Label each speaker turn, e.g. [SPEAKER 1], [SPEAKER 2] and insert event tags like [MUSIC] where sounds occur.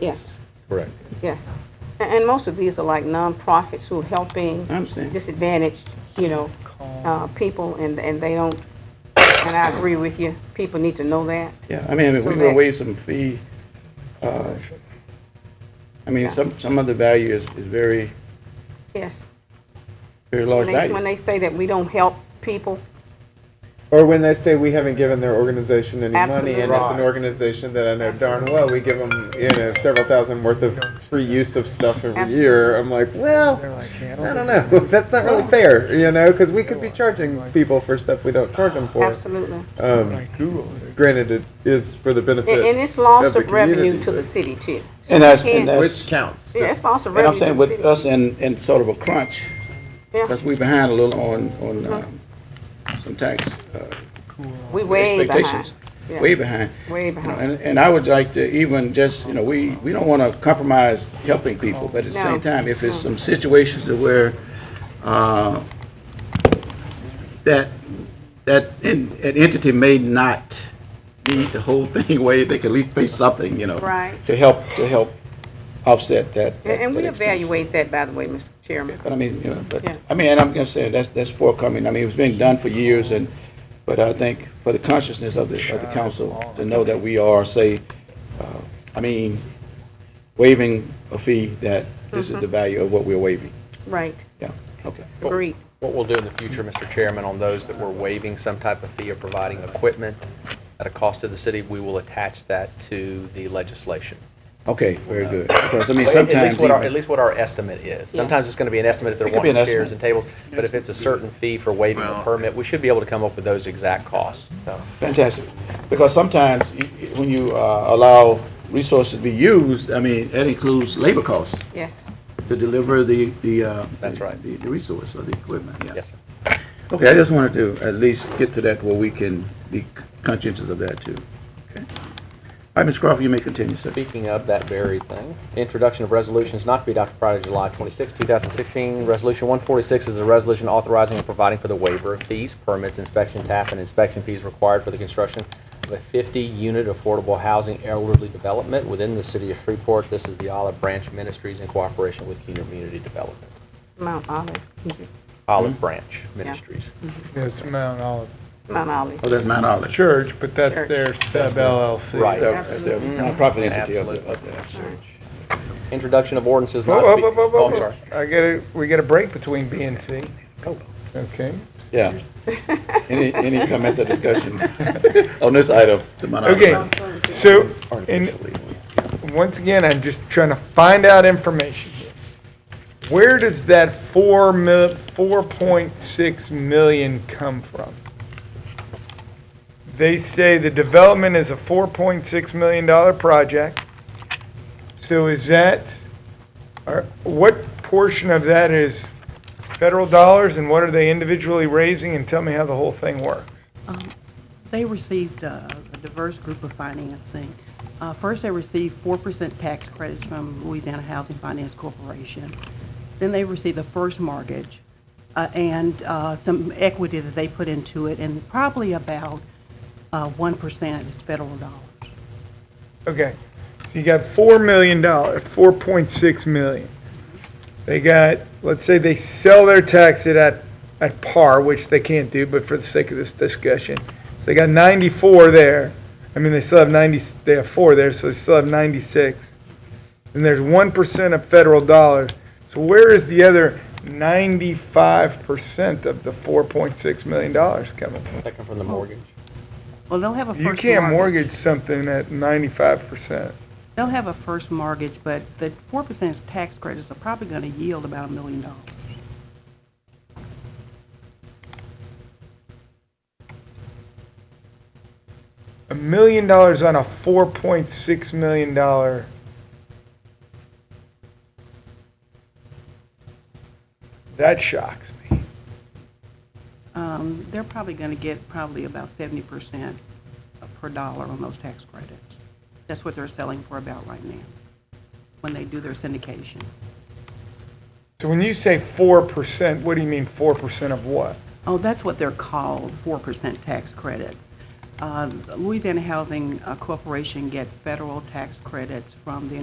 [SPEAKER 1] Yes,
[SPEAKER 2] Correct.
[SPEAKER 1] yes. A- And most of these are like nonprofits who are helping
[SPEAKER 3] I understand.
[SPEAKER 1] disadvantaged, you know, uh, people, and, and they don't, and I agree with you, people need to know that.
[SPEAKER 3] Yeah, I mean, if we
[SPEAKER 1] So
[SPEAKER 3] were
[SPEAKER 1] that-
[SPEAKER 3] away some fee, uh, I mean, some, some of the value is, is very,
[SPEAKER 1] Yes.
[SPEAKER 3] very large
[SPEAKER 1] When they- When
[SPEAKER 3] value.
[SPEAKER 1] they say that we don't help people,
[SPEAKER 4] Or when they say we haven't given their organization any money, and it's an
[SPEAKER 1] Absolutely.
[SPEAKER 4] organization that I know darn well we give them you know several thousand worth of free use of stuff every year. I'm like, well,
[SPEAKER 5] They're like, yeah,
[SPEAKER 4] I don't know. [LAUGHS] That's not really fair, you know, because we could be charging people for stuff we don't charge them for.
[SPEAKER 1] absolutely.
[SPEAKER 4] Um,
[SPEAKER 5] Like Google.
[SPEAKER 4] granted, it is for the benefit.
[SPEAKER 1] And, and it's loss
[SPEAKER 4] Of the
[SPEAKER 1] of revenue
[SPEAKER 4] community,
[SPEAKER 1] to the
[SPEAKER 4] but-
[SPEAKER 1] city too. So
[SPEAKER 3] And
[SPEAKER 1] we
[SPEAKER 3] that's,
[SPEAKER 1] can't-
[SPEAKER 3] and that's.
[SPEAKER 4] which counts.
[SPEAKER 1] Yeah, it's loss of
[SPEAKER 3] And I'm
[SPEAKER 1] revenue to
[SPEAKER 3] saying
[SPEAKER 1] the
[SPEAKER 3] with
[SPEAKER 1] city.
[SPEAKER 3] us in, in sort of a crunch,
[SPEAKER 1] Yeah, Uh-huh.
[SPEAKER 3] because we behind a little on, on, um, some tax, uh,
[SPEAKER 1] we way behind.
[SPEAKER 3] expectations.
[SPEAKER 1] Yeah.
[SPEAKER 3] Way behind.
[SPEAKER 1] Way
[SPEAKER 3] You know,
[SPEAKER 1] behind.
[SPEAKER 3] And, and I would like to even just, you know, we, we don't want to compromise helping people, but at the
[SPEAKER 1] No.
[SPEAKER 3] same time, if it's some situations to where, uh, that, that en- an entity may not need the whole [LAUGHS] thing away, they can at least pay something, you know?
[SPEAKER 1] Right.
[SPEAKER 3] To help, to help offset that.
[SPEAKER 1] And, and we
[SPEAKER 3] that expense.
[SPEAKER 1] evaluate that, by the way, Mr. Chairman.
[SPEAKER 3] But I mean, you know, but,
[SPEAKER 1] Yeah.
[SPEAKER 3] I mean, and I'm gonna say, that's, that's forthcoming, I mean, it's been done for years, and, but I think for the consciousness of the, of the council, to know that we are, say, uh, I mean, waiving a fee, that this is the value of what we're waiving,
[SPEAKER 1] Right,
[SPEAKER 3] yeah, okay.
[SPEAKER 1] agreed.
[SPEAKER 2] What we'll do in the future, Mr. Chairman, on those that we're waiving some type of fee or providing equipment at a cost to the city, we will attach that to the legislation.
[SPEAKER 3] Okay, very good, because, I mean,
[SPEAKER 2] At- At
[SPEAKER 3] sometimes,
[SPEAKER 2] least what our, at
[SPEAKER 3] even-
[SPEAKER 2] least what our estimate is. Sometimes it's going to be an estimate if they're
[SPEAKER 3] It could be
[SPEAKER 2] wanting
[SPEAKER 3] an
[SPEAKER 2] chairs
[SPEAKER 3] estimate.
[SPEAKER 2] and tables, but if it's a certain fee for waiving the permit, we should be able to come up with those exact costs. So,
[SPEAKER 3] fantastic, because sometimes, y- y- when you, uh, allow resources to be used, I mean, that includes labor costs
[SPEAKER 1] Yes,
[SPEAKER 3] to deliver the, the, uh.
[SPEAKER 2] That's right.
[SPEAKER 3] The, the resource or the equipment, yeah.
[SPEAKER 2] Yes, sir.
[SPEAKER 3] Okay, I just wanted to at least get to that where we can be conscientious of that too. Okay. All right, Ms. Crawford, you may continue, sir.
[SPEAKER 2] Speaking of that very thing, introduction of resolutions not to be adopted prior to July 26, 2016. Resolution 146 is a resolution authorizing and providing for the waiver of fees, permits, inspection tap, and inspection fees required for the construction of a 50-unit affordable housing elderly development within the city of Shreveport. This is the Olive Branch Ministries in cooperation with Community Development.
[SPEAKER 1] Mount Olive,
[SPEAKER 2] Olive
[SPEAKER 5] Hmm.
[SPEAKER 2] Branch Ministries.
[SPEAKER 5] It's Mount Olive
[SPEAKER 1] Mount Olive.
[SPEAKER 3] Oh, that's Mount Olive.
[SPEAKER 5] Church, but that's
[SPEAKER 1] Church.
[SPEAKER 5] their sub LLC.
[SPEAKER 2] Right.
[SPEAKER 3] That's a- that's a nonprofit entity of the, of the church.
[SPEAKER 2] Introduction of ordinances
[SPEAKER 5] Whoa,
[SPEAKER 2] not
[SPEAKER 5] whoa,
[SPEAKER 2] to be...
[SPEAKER 5] whoa, whoa,
[SPEAKER 2] Oh,
[SPEAKER 5] whoa,
[SPEAKER 2] I'm sorry. Oh.
[SPEAKER 5] I get a, we get a break between B and C. Okay.
[SPEAKER 3] Yeah. Any, any comments or discussion [LAUGHS] on this item? the Mount Olive
[SPEAKER 5] Okay,
[SPEAKER 3] Branch?
[SPEAKER 5] so, and
[SPEAKER 3] Artificially.
[SPEAKER 5] once again, I'm just trying to find out information here. Where does that four mil, four point six million come from? They say the development is a four point six million dollar project. So is that, or what portion of that is federal dollars and what are they individually raising? And tell me how the whole thing works.
[SPEAKER 6] They received uh, a diverse group of financing. Uh, First, they received 4% tax credits from Louisiana Housing Finance Corporation. Then they received the first mortgage uh, and uh, some equity that they put into it, and probably about uh, 1% is federal dollars.
[SPEAKER 5] Okay, so you got four million dollars, four point six million. They got, let's say they sell their tax at- at, at par, which they can't do, but for the sake of this discussion. So they got ninety-four there. I mean, they still have ninety, they have four there, so they still have ninety-six. And there's one percent of federal dollars. So where is the other ninety-five percent of the four point six million dollars coming from?
[SPEAKER 2] Second from the mortgage.
[SPEAKER 6] Well, they'll have a first
[SPEAKER 5] You
[SPEAKER 6] mortgage.
[SPEAKER 5] can't mortgage something at ninety-five percent.
[SPEAKER 6] They'll have a first mortgage, but the 4% is tax credits are probably going to yield about a million dollars.
[SPEAKER 5] a million dollars on a four point six million dollar. That shocks me.
[SPEAKER 6] Um, They're probably going to get probably about 70% per dollar on those tax credits. That's what they're selling for about right now, when they do their syndication.
[SPEAKER 5] So when you say four percent, what do you mean four percent of what?
[SPEAKER 6] Oh, that's what they're called, 4% tax credits. Um, Uh, Louisiana Housing uh, Corporation get federal tax credits from the